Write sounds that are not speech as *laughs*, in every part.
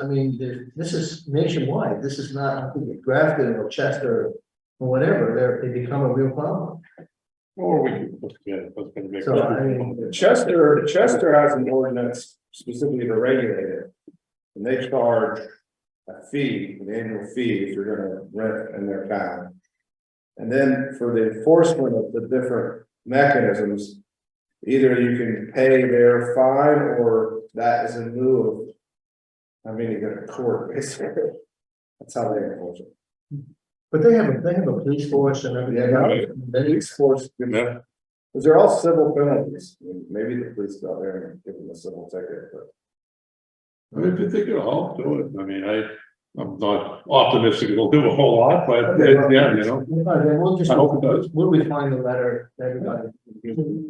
I mean, there- this is nationwide, this is not Grafton or Chester or whatever, they're, they become a real problem. Or we can put together, put together. make- So, I mean- Chester, Chester has an ordinance specifically to regulate it. And they charge a fee, an annual fee if you're gonna rent in their town. And then for the enforcement of the different mechanisms. Either you can pay their fine or that is in lieu of. I mean, you go to court, *laughs* basically. That's how they enforce it. But they have, a they have a police force and everything. Yeah, else. right. They- Police force. Cause they're all civil penalties, I mean, maybe the police go out there and give them a civil ticket, but. I mean, if you think it'll help, do it. I mean, I, I'm not optimistic it'll do a whole lot, but it- yeah, you know, No, they will Uh, just, I hope it does. we'll refine the letter, to everybody,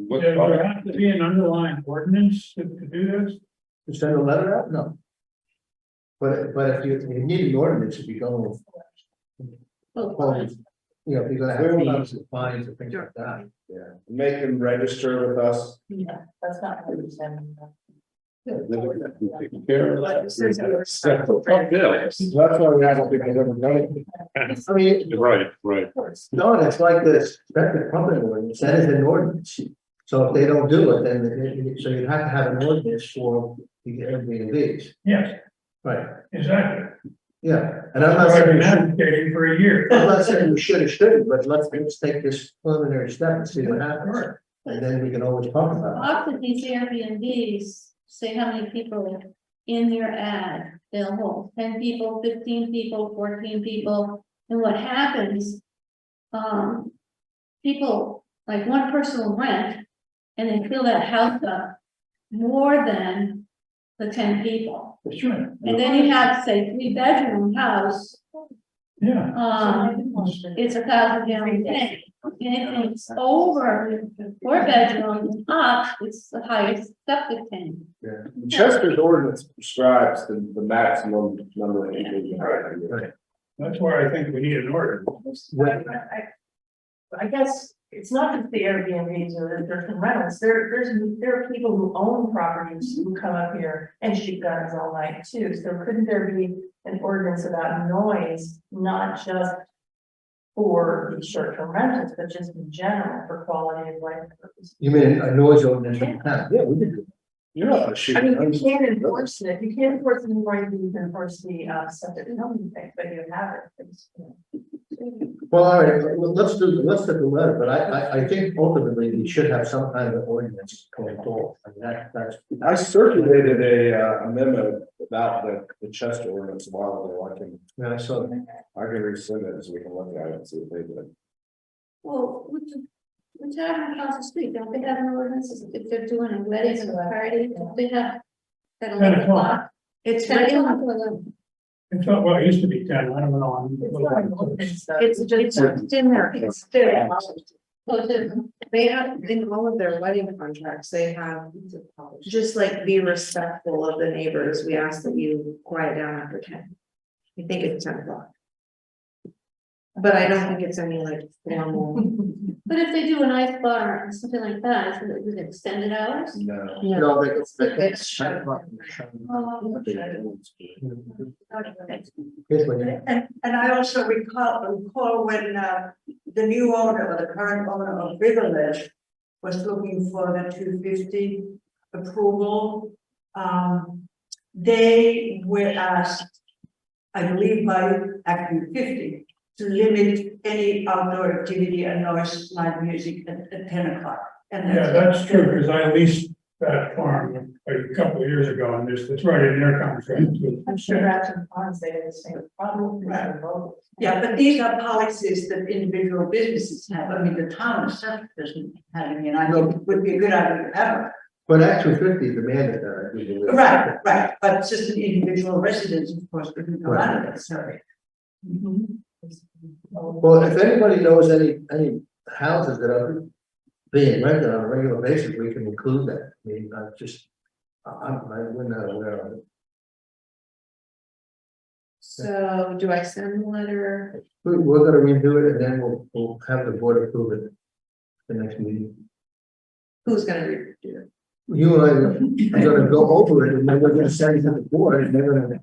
But, There uh, there has to be an underlying ordinance to to do this, to send a letter out, no. But, but if you, you need an ordinance, if you go. Well, you know, if you're gonna have fees and fines and things like that. Yeah, make them register with us. Yeah, that's not what you said. Taking care of that. That's a tough deal. That's why we don't think they've ever done it. I mean, Right, right. No, and it's like this, that's the company ordinance, that is an ordinance. So if they don't do it, then, it- it- so you have to have an ordinance for the Airbnb's. yes, Right. exactly. Yeah, and I'm not saying, I've you should- advocating for a year. I'm not saying we should or shouldn't, but let's, let's take this preliminary step and see what happens. And then we can always talk about Often these Airbnbs say how many people in their ad they'll hold, ten people, fifteen people, fourteen people, and what happens? Um, people, like one person will rent, and they fill that house up more than the ten people. Sure, And then you have, say, three bedroom house, yeah. um, it's a thousand gallon tank. Anything over four bedrooms up, it's the highest septic tank. Chester's ordinance prescribes the, the maximum number of people. you can have. That's where I think we need an ordinance. it. I I guess it's not just the Airbnbs or the different rentals, there, there's, there are people who own properties who come up here and shoot guns all night too, so couldn't there be an ordinance about noise, not just for the short-term rentals, but just in general for quality of life purposes? You mean a noise ordinance in town? Yeah, we did. do You're not a I shooting. mean, you can't enforce it, you can't enforce it anymore, you can enforce the, uh, septic zoning thing, but you have it. it's, you know. that. Well, all right, well, let's do, let's do the letter, but I, I, I think ultimately we should have some kind of ordinance going forward. And that, that's, I circulated a, uh, a memo about the, the Chester ordinance a while ago, I can, yeah, I saw that. I can resend it so we can look at it and see if they did. it. Well, with the, the town across the street, don't they have an ordinance if they're doing a wedding or a party, don't they have? At eleven o'clock? It's, Ten written- o'clock or eleven? It's not, well, it used to be ten, I don't know. I'm- It's not an ordinance, though. it's just, it's in there, it's there, Oh, it isn't. they have, in all of their wedding contracts, they have. Just like be respectful of the neighbors, we ask that you quiet down after ten. I think it's ten o'clock. But I don't think it's any like formal. But if they do an ice bar or something like that, is it is it extended hours? No. You know, they- they- It's shut. Oh, okay. Here's what you- And, and I also recall, recall when, uh, the new owner or the current owner of Riverledge was looking for the two fifty approval. Um, they were asked, I believe by Act fifty, to limit any outdoor activity and noise, live music at, at ten o'clock. And Yeah, that's true, because I leased that farm a couple of years ago, and there's, it's right in their contract. I'm sure Acton Ponds, they have the same problem, they have both. Yeah, but these are policies that individual businesses have. I mean, the town itself doesn't have any, and I think it would be a good idea to have. it. But Act two fifty demanded that, I do believe. Right, right, but it's just an individual residence, of course, wouldn't go out of it, sorry. Well, if anybody knows any, any houses that are being rented on a regular basis, we can include that. I mean, I just, I, I'm, I- we're not aware of it. So do I send the letter? We, we're gonna redo it and then we'll, we'll have the board approve it the next meeting. Who's gonna read it? You and I are gonna go over it and then we're gonna send it to the board and they're gonna